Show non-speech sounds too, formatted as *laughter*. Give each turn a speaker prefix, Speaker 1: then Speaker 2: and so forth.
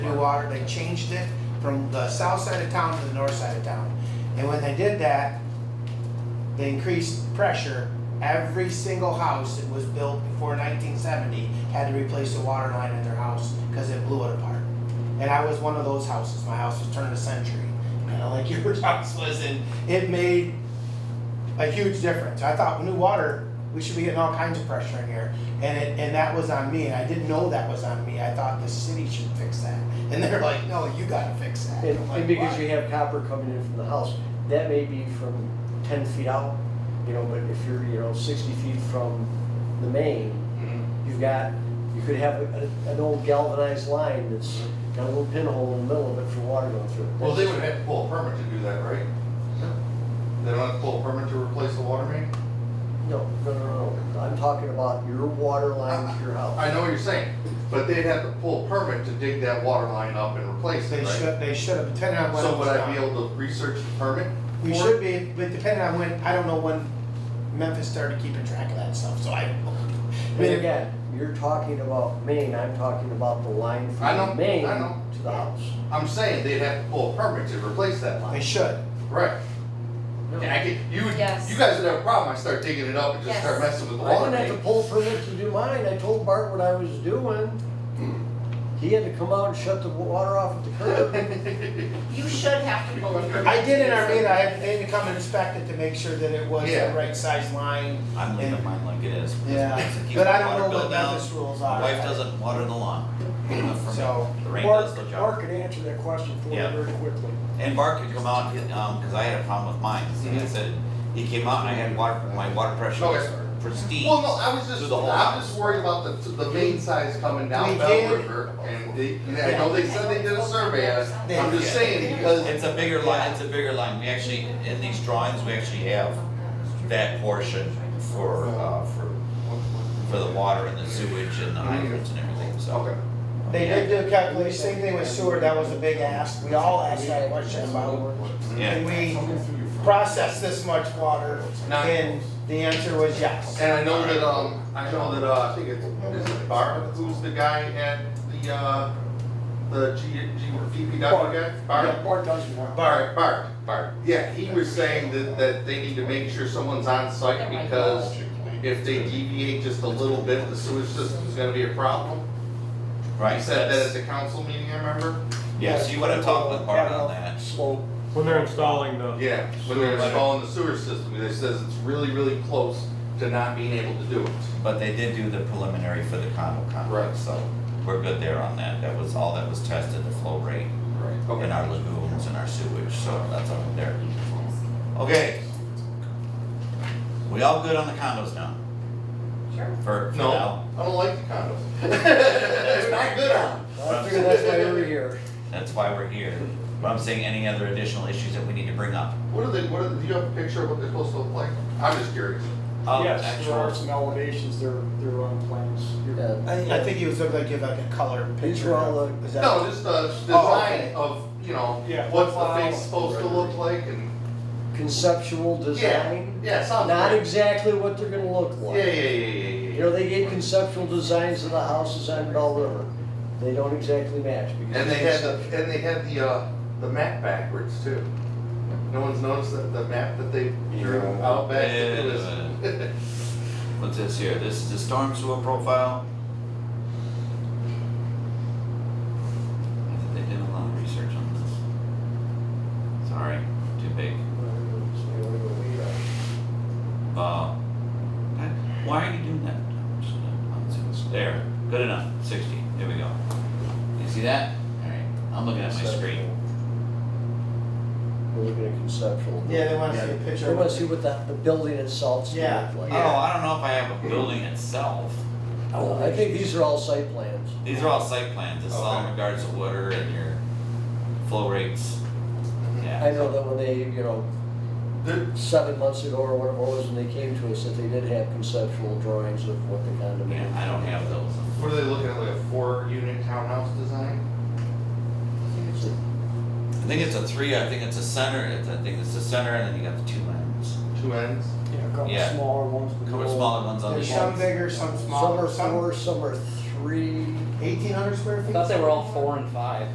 Speaker 1: water, they changed it from the south side of town to the north side of town. And when they did that, they increased pressure. Every single house that was built before nineteen seventy had to replace the water line at their house because it blew it apart. And I was one of those houses. My house was turned a century, *laughs* kind of like your house was, and it made a huge difference. I thought new water, we should be getting all kinds of pressure in here. And it, and that was on me, and I didn't know that was on me. I thought the city should fix that. And they're like, no, you gotta fix that.
Speaker 2: And,
Speaker 1: I'm like,
Speaker 2: and because
Speaker 1: "Why?"
Speaker 2: you have copper coming in from the house, that may be from ten feet out, you know, but if you're, you know, sixty feet from the main,
Speaker 1: Mhm.
Speaker 2: you've got, you could have a, an old galvanized line that's got a little pinhole in the middle of it for water going through.
Speaker 3: Well, they would have to pull a permit to do that, right? They don't have to pull a permit to replace the water main?
Speaker 2: No, no, no, no, I'm talking about your water line to your house.
Speaker 3: I know what you're saying, but they'd have to pull a permit to dig that water line up and replace
Speaker 1: They
Speaker 3: it, right?
Speaker 1: should, they should have, depending on when it
Speaker 3: So
Speaker 1: was
Speaker 3: would I
Speaker 1: done.
Speaker 3: be able to research the permit?
Speaker 1: We
Speaker 3: for
Speaker 1: should
Speaker 3: it?
Speaker 1: be, but depending on when, I don't know when Memphis started keeping track of that stuff, so I don't know. I
Speaker 2: And
Speaker 1: mean,
Speaker 2: again, you're talking about main, I'm talking about the line
Speaker 3: I
Speaker 2: from
Speaker 3: know,
Speaker 2: the main
Speaker 3: I know.
Speaker 2: to the house.
Speaker 3: I'm saying they'd have to pull a permit to replace that
Speaker 1: They
Speaker 3: line.
Speaker 1: should.
Speaker 3: Right. And I could, you would,
Speaker 4: Yes.
Speaker 3: you guys would have a problem, I start digging it up and just
Speaker 4: Yes.
Speaker 3: start messing with the
Speaker 2: I
Speaker 3: water
Speaker 2: didn't have to
Speaker 3: main.
Speaker 2: pull permit to do mine, I told Bart what I was doing. He had to come out and shut the water off at the
Speaker 1: *laughs*
Speaker 2: curb.
Speaker 3: *laughs*
Speaker 4: You should have to pull a permit.
Speaker 1: I did in Armenia, I had, they had to come inspect it to make sure that it was the
Speaker 3: Yeah.
Speaker 1: right size line.
Speaker 5: I'm leaving mine like it is. because
Speaker 1: Yeah,
Speaker 5: it keeps
Speaker 1: but I
Speaker 5: the water
Speaker 1: don't know
Speaker 5: bill
Speaker 1: what
Speaker 5: down.
Speaker 1: Memphis rules
Speaker 5: My
Speaker 1: are.
Speaker 5: wife doesn't water the lawn, good enough for
Speaker 1: So,
Speaker 5: me, the rain does
Speaker 6: Mark,
Speaker 5: the job.
Speaker 6: Mark could answer that question for you
Speaker 5: Yeah.
Speaker 6: very quickly.
Speaker 5: And Mark could come out, and, um, cause I had a problem with mine, so I said, he came out and I had water, my water pressure was
Speaker 3: Mm-hmm. Okay.
Speaker 5: pristine.
Speaker 3: Well, no, I was
Speaker 5: Through
Speaker 3: just,
Speaker 5: the whole
Speaker 3: I'm
Speaker 5: house.
Speaker 3: just worried about the, the main size coming
Speaker 1: We
Speaker 3: down
Speaker 1: did-
Speaker 3: Bell River, and they, and I know they said they did a survey, on it. I'm just saying, because
Speaker 5: It's a bigger line, it's a bigger line, we actually, in these drawings, we actually have that portion for, uh, for, for the water and the sewage and the hydrants and everything, so.
Speaker 3: Mm-hmm. Okay.
Speaker 1: They did do a calculation, same thing with Seward, that was a big ask, we all asked that question about,
Speaker 5: Yeah,
Speaker 1: can we process this much water?
Speaker 3: Not-
Speaker 1: And the answer was yes.
Speaker 3: And I know that, um, I know that, uh, I think it's, is it Barb, who's the guy at the, uh, the G, G, DPW guy?
Speaker 6: Yeah,
Speaker 3: Barb?
Speaker 6: Bart does it now.
Speaker 3: Barb, Barb, Barb, yeah, he was saying that, that they need to make sure someone's on site because if they deviate just a little bit, the sewage system's gonna be a problem.
Speaker 5: right,
Speaker 3: He said that at
Speaker 5: that's,
Speaker 3: the council meeting, I remember?
Speaker 5: yes, you wanna talk with Bart on that.
Speaker 2: Slope.
Speaker 7: When they're installing the.
Speaker 3: Yeah, when they're installing the sewer system, they says it's really, really close to not being able to do it.
Speaker 5: But they did do the preliminary for the condo
Speaker 3: Right.
Speaker 5: complex, so we're good there on that. That was all that was tested, the flow rate
Speaker 3: Right. Okay.
Speaker 5: in our lagoons and our sewage, so that's all there. Okay. We all good on the condos now?
Speaker 4: Sure.
Speaker 5: For, for
Speaker 3: No,
Speaker 5: now?
Speaker 3: I don't like the *laughs* condos. It's not good on.
Speaker 2: I figured that's why we were here.
Speaker 5: That's why we're here. But I'm saying any other additional issues that we need to bring up?
Speaker 3: What are they, what are, the- do you have a picture of what they're supposed to look like? I'm just curious.
Speaker 5: Um,
Speaker 6: Yes, there are
Speaker 5: actual-
Speaker 6: some elevations, they're, they're on plans. You're-
Speaker 2: Yeah.
Speaker 1: I, I think he was looking like, give like a color picture.
Speaker 2: These were all
Speaker 1: of-
Speaker 2: the-
Speaker 1: is that-
Speaker 3: No, just the
Speaker 1: okay.
Speaker 3: design of, you know,
Speaker 6: Yeah.
Speaker 3: what's the
Speaker 6: Wow.
Speaker 3: face supposed to look like and,
Speaker 2: Conceptual
Speaker 3: yeah,
Speaker 2: design,
Speaker 3: yeah, sounds
Speaker 2: not
Speaker 3: great.
Speaker 2: exactly what they're gonna look like.
Speaker 3: Yeah, yeah, yeah, yeah, yeah,
Speaker 2: You know, they get conceptual designs of the houses on Bell River. They don't exactly match because.
Speaker 3: And they had the, and they had the, uh, the map backwards too. No one's noticed that the map that they drew
Speaker 2: Yeah.
Speaker 3: out back, it
Speaker 5: Yeah.
Speaker 3: was.
Speaker 5: What's this here? This is the storm sewer profile. I think They did a lot of research on this. Sorry, too big. Uh, that- why are you doing that? There, good enough, sixty, there we go. You see that? Alright, I'm looking at my screen.
Speaker 2: We're looking at conceptual.
Speaker 1: Yeah, they wanna see a picture.
Speaker 2: They
Speaker 1: of
Speaker 2: wanna
Speaker 1: it.
Speaker 2: see what the, the building itself's gonna look like.
Speaker 5: Oh, I don't know if I have a building itself.
Speaker 2: Uh, I think these are all site plans.
Speaker 5: These are all site plans, this is all in
Speaker 3: Okay.
Speaker 5: regards to water and your flow rates.
Speaker 3: *laughs*
Speaker 5: Yeah.
Speaker 2: I know that when they, you know,
Speaker 3: There-
Speaker 2: seven months ago or whatever it was, and they came to us, that they did have conceptual drawings of what the
Speaker 5: Yeah,
Speaker 2: condominium.
Speaker 5: I don't have those.
Speaker 3: What are they looking at, like a four-unit townhouse design?
Speaker 5: I think it's a three, I think it's a center, it's- I think it's the center, and then you got the two ends.
Speaker 3: Two ends?
Speaker 6: Yeah, a
Speaker 5: Yeah.
Speaker 6: couple smaller ones. but
Speaker 5: Couple
Speaker 6: they're all-
Speaker 5: smaller ones on the
Speaker 1: There's some
Speaker 5: ends.
Speaker 1: bigger, some
Speaker 2: Some
Speaker 1: smaller,
Speaker 2: are
Speaker 1: some
Speaker 2: four, some are three.
Speaker 1: eighteen hundred square feet.
Speaker 8: I thought they were all four and five.